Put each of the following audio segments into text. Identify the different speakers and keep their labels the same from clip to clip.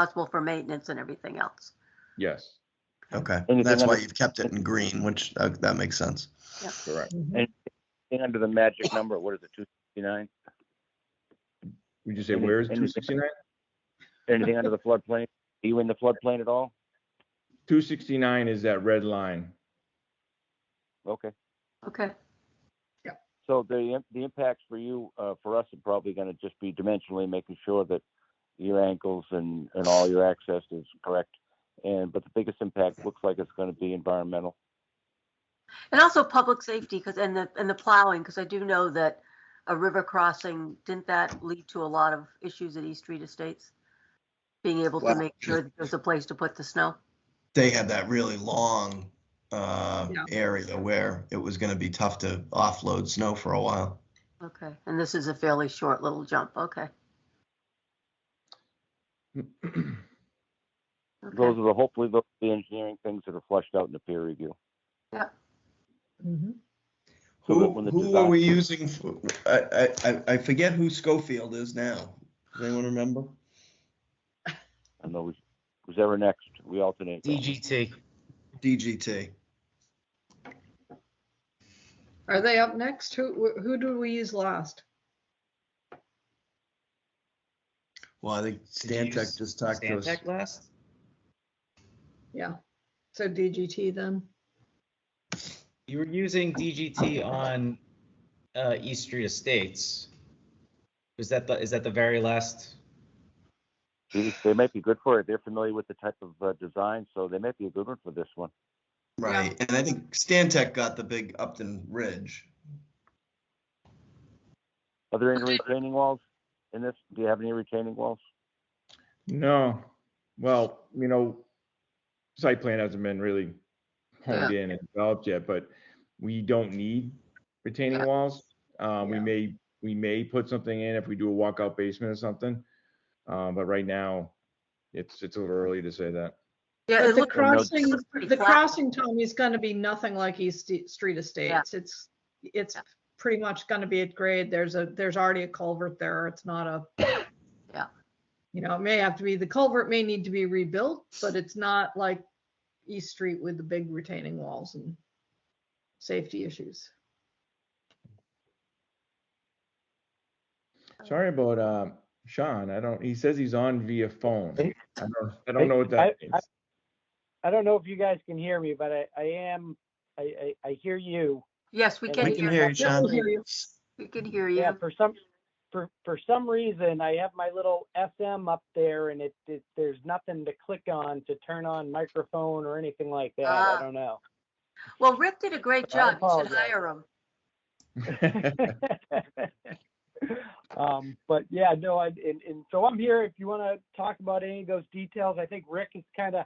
Speaker 1: responsible for maintenance and everything else.
Speaker 2: Yes,
Speaker 3: Okay,
Speaker 4: Anything
Speaker 3: that's why
Speaker 4: under-
Speaker 3: you've kept it in green, which, uh, that makes sense.
Speaker 2: correct.
Speaker 4: Anything under the magic number, what is it, two sixty-nine?
Speaker 2: Would you say
Speaker 4: Any-
Speaker 2: where is
Speaker 4: anything-
Speaker 2: two sixty-nine?
Speaker 4: Anything under the floodplain? Are you in the floodplain at all?
Speaker 2: Two sixty-nine is that red line.
Speaker 4: Okay,
Speaker 1: Okay,
Speaker 4: so the, im- the impacts for you, uh, for us are probably gonna just be dimensionally making sure that your ankles and, and all your access is correct. And, but the biggest impact looks like it's gonna be environmental.
Speaker 1: and also public safety, because, and the, and the plowing, because I do know that a river crossing, didn't that lead to a lot of issues at East Street Estates? Being able to
Speaker 3: Well-
Speaker 1: make sure that there's a place to put the snow?
Speaker 3: They had that really long uh,
Speaker 1: Yeah.
Speaker 3: area where it was going to be tough to offload snow for a while.
Speaker 1: Okay, and this is a fairly short little jump, okay. okay.
Speaker 4: Those are the, hopefully, those are the engineering things that are flushed out in the peer review. So that
Speaker 3: Who,
Speaker 4: when the
Speaker 3: who are
Speaker 4: design-
Speaker 3: we using? f- I, I- I, I forget who Schofield is now. Does anyone remember?
Speaker 4: I know, who's- who's ever next, we alternate. though.
Speaker 5: DGT.
Speaker 3: DGT.
Speaker 6: Are they up next? Who, wh- who do we use last?
Speaker 3: Well, I think
Speaker 5: Did you use
Speaker 3: Stantec just talked to us.
Speaker 5: Stantec last?
Speaker 6: Yeah, so DGT then.
Speaker 5: You were using DGT on uh, East Street Estates. Was that the, is that the very last?
Speaker 4: They- They might be good for it. They're familiar with the type of uh, design, so they might be a good one for this one.
Speaker 3: Right, and I think Stantec got the big Upton Ridge.
Speaker 4: Are there any retaining walls in this? Do you have any retaining walls?
Speaker 2: No, well, you know, site plan hasn't been really honed in and developed yet, but we don't need retaining walls. Uh, we
Speaker 6: Yeah.
Speaker 2: may, we may put something in if we do a walkout basement or something. Uh, but right now, it's, it's a little early to say that.
Speaker 1: Yeah,
Speaker 6: But
Speaker 1: it
Speaker 6: the
Speaker 1: looks,
Speaker 4: cross-
Speaker 6: crossing,
Speaker 1: pretty
Speaker 6: the
Speaker 1: flat.
Speaker 6: crossing, Tom, is gonna be nothing like East Ste- Street Estates. It's, it's
Speaker 1: Yeah.
Speaker 6: pretty much gonna be at grade. There's a, there's already a culvert there. It's not a.
Speaker 1: Yeah.
Speaker 6: You know, it may have to be, the culvert may need to be rebuilt, but it's not like East Street with the big retaining walls and safety issues.
Speaker 2: Sorry about, uh, Sean, I don't, he says he's on via phone. I
Speaker 7: Hey.
Speaker 2: don't, I don't know what
Speaker 7: I-
Speaker 2: that means.
Speaker 7: I- I don't know if you guys can hear me, but I, I am, I, I, I hear you.
Speaker 1: yes, we
Speaker 7: We
Speaker 1: can
Speaker 3: We can hear you,
Speaker 1: hear,
Speaker 6: Yeah,
Speaker 3: Sean.
Speaker 6: we'll hear you.
Speaker 1: we can hear you.
Speaker 7: Yeah, for some, for, for some reason, I have my little SM up there and it, it, there's nothing to click on to turn on microphone or anything like that.
Speaker 1: Ah.
Speaker 7: I don't know.
Speaker 1: Well, Rick did a great
Speaker 7: I
Speaker 1: job, you should
Speaker 7: apologize.
Speaker 1: hire him.
Speaker 7: Um, but yeah, no, I, and, and so I'm here if you want to talk about any of those details. I think Rick has kind of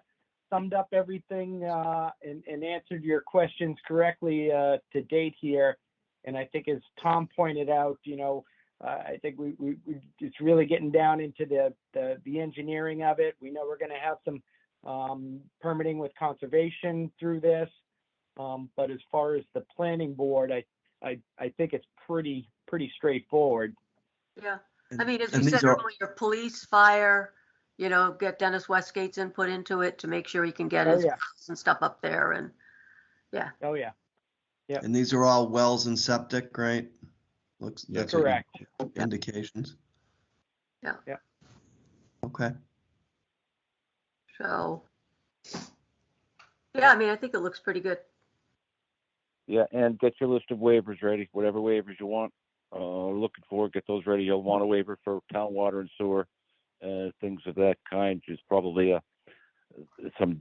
Speaker 7: summed up everything, uh, and, and answered your questions correctly, uh, to date here. And I think as Tom pointed out, you know, uh, I think we, we, we, it's really getting down into the, the, the engineering of it. We know we're going to have some, um, permitting with conservation through this. Um, but as far as the planning board, I, I, I think it's pretty, pretty straightforward.
Speaker 1: Yeah, I mean, as
Speaker 3: And
Speaker 1: we
Speaker 3: these
Speaker 1: said
Speaker 3: are-
Speaker 1: earlier, police, fire, you know, get Dennis Westgate's input into it to make sure he can get
Speaker 7: Oh,
Speaker 1: his
Speaker 7: yeah.
Speaker 1: house and stuff up there and,
Speaker 7: Oh, yeah.
Speaker 3: And these are all wells and septic, right? Looks,
Speaker 2: Yeah.
Speaker 3: that's what your
Speaker 7: Correct.
Speaker 3: indications.
Speaker 1: Yeah.
Speaker 7: Yeah.
Speaker 3: Okay,
Speaker 1: so. Yeah, I mean, I think it looks pretty good.
Speaker 4: Yeah, and get your list of waivers ready, whatever waivers you want. Uh, looking for, get those ready. You'll want a waiver for town water and sewer, uh, things of that kind. There's probably a, some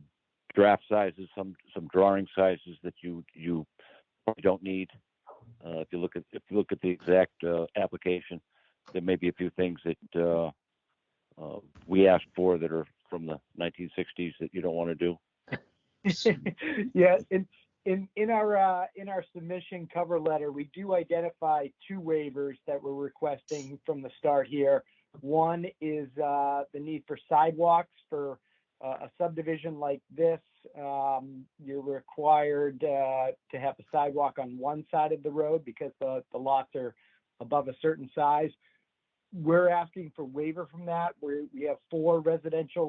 Speaker 4: draft sizes, some, some drawing sizes that you, you probably don't need. Uh, if you look at, if you look at the exact, uh, application, there may be a few things that, uh, uh, we asked for that are from the nineteen sixties that you don't want to do.
Speaker 7: yeah, in in in our uh, in our submission cover letter, we do identify two waivers that we're requesting from the start here. One is uh, the need for sidewalks for uh, a subdivision like this. Um, you're required uh, to have a sidewalk on one side of the road because the, the lots are above a certain size. We're asking for waiver from that. We we have four residential